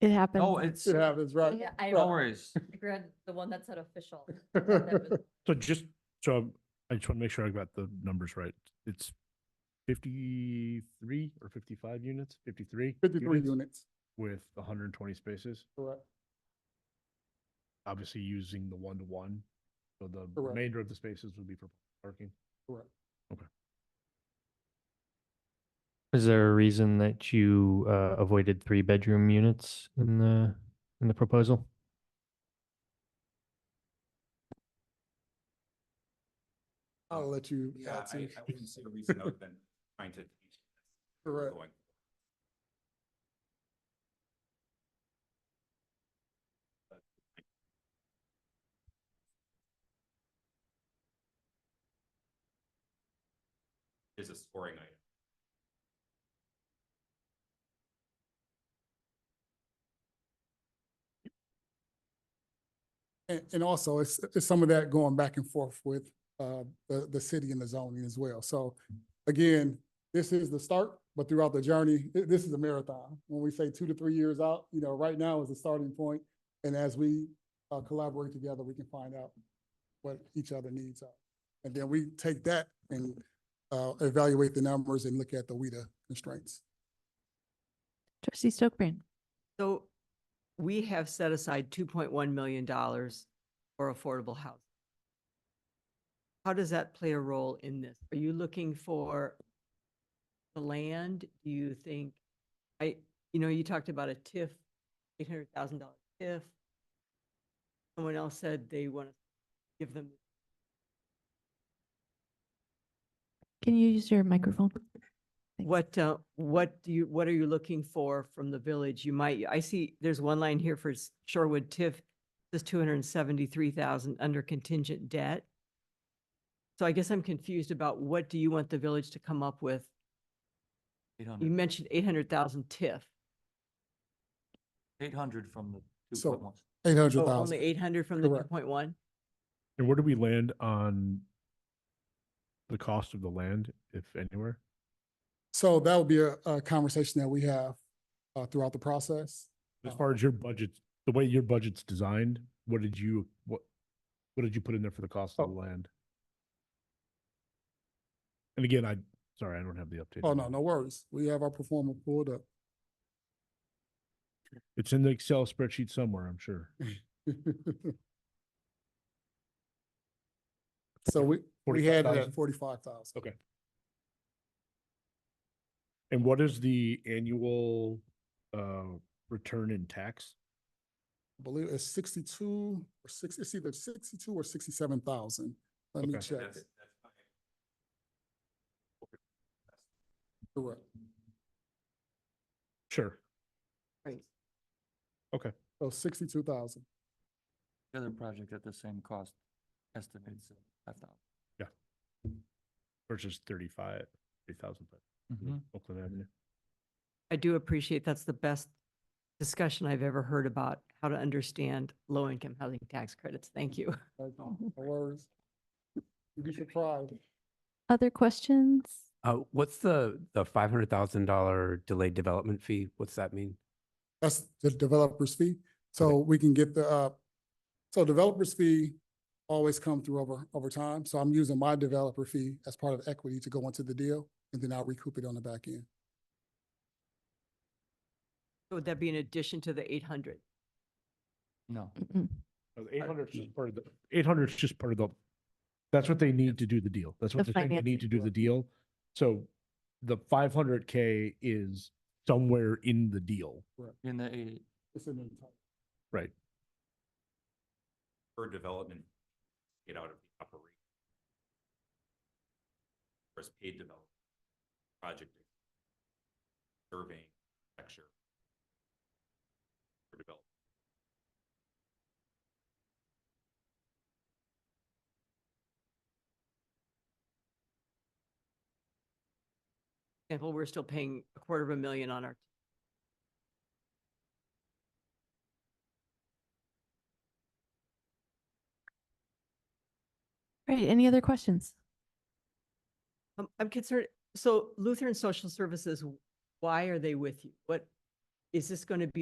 It happened. No, Oh, it's, It no happens, right? Yeah, I Well- worries. read the one that said official. So just, so I just want to make sure I got the numbers right. It's fifty-three or fifty-five units, fifty-three? Fifty-three units units, With hundred and twenty spaces, correct, obviously using the one-to-one. So the Correct. remainder of the spaces would be for parking. correct. Is there a reason that you uh, avoided three bedroom units in the in the proposal? I'll let you Yeah, add I, some, I wouldn't see a reason other than trying to. correct. going. Is a scoring item. And, and also it's, it's some of that going back and forth with, uh, the, the city and the zoning as well. So again, this is the start, but throughout the journey, thi- this is a marathon. When we say two to three years out, you know, right now is the starting point, And as we, uh, collaborate together, we can find out what each other needs are. And then we take that and, uh, evaluate the numbers and look at the WIDA constraints. Trustee Stokbrand. So we have set aside two point one million dollars for affordable housing. How does that play a role in this? Are you looking for the land? Do you think, I, you know, you talked about a TIF, eight hundred thousand dollar TIF. Someone else said they want to give them Can you use your microphone? Thanks. What, uh, what do you, what are you looking for from the village? You might, I see, there's one line here for S- Shorewood TIF, this two hundred and seventy-three thousand under contingent debt. So I guess I'm confused about what do you want the village to come up with? You mentioned eight hundred thousand TIF, Eight hundred from the two So- point one. Eight hundred Oh, only thousand. eight hundred from the two Correct. point one? And where do we land on the cost of the land, if anywhere? So that would be a, a conversation that we have, uh, throughout the process. As Oh. far as your budget, the way your budget's designed, what did you, what, what did you put in there for the cost Oh. of the land? And again, I, sorry, I don't have the update. Oh, on no, that. no worries. We have our performer pulled up. It's in the Excel spreadsheet somewhere, I'm sure. So we, we had it at 45,000. forty-five thousand. Okay. And what is the annual, uh, return in tax? I believe it's sixty-two or six, it's either sixty-two or sixty-seven thousand. Let me Okay. check. That's, that's my Correct. Sure. Right. So sixty-two thousand. The other project at the same cost estimates at five thousand. Versus thirty-five, thirty thousand, Mm-hmm. Mm-hmm. Oakland Avenue. I do appreciate that's the best discussion I've ever heard about how to understand low-income housing tax credits. Thank you. Mm-hmm. No worries. You get your pride. Other questions? Uh, what's the, the five hundred thousand dollar delayed development fee? What's that mean? That's the developer's fee. So we can get the, uh, so developer's fee always come through over, over time. So I'm using my developer fee as part of equity to go into the deal and then I'll recoup it on the back end. Would that be in addition to the eight hundred? No. Mm-mm. Eight hundred's just part of the, eight hundred's just part of the, that's what they need to do the deal. That's what The they think they financing need to do for the deal. So the five hundred K is somewhere in the deal. In the eight, It's in the entire- per development, get out of the operation. First paid development, project, surveying, lecture. For development. example, we're still paying a quarter of a million on our. Right, any other questions? Um, I'm concerned, so Lutheran Social Services, why are they with you? What, is this going to be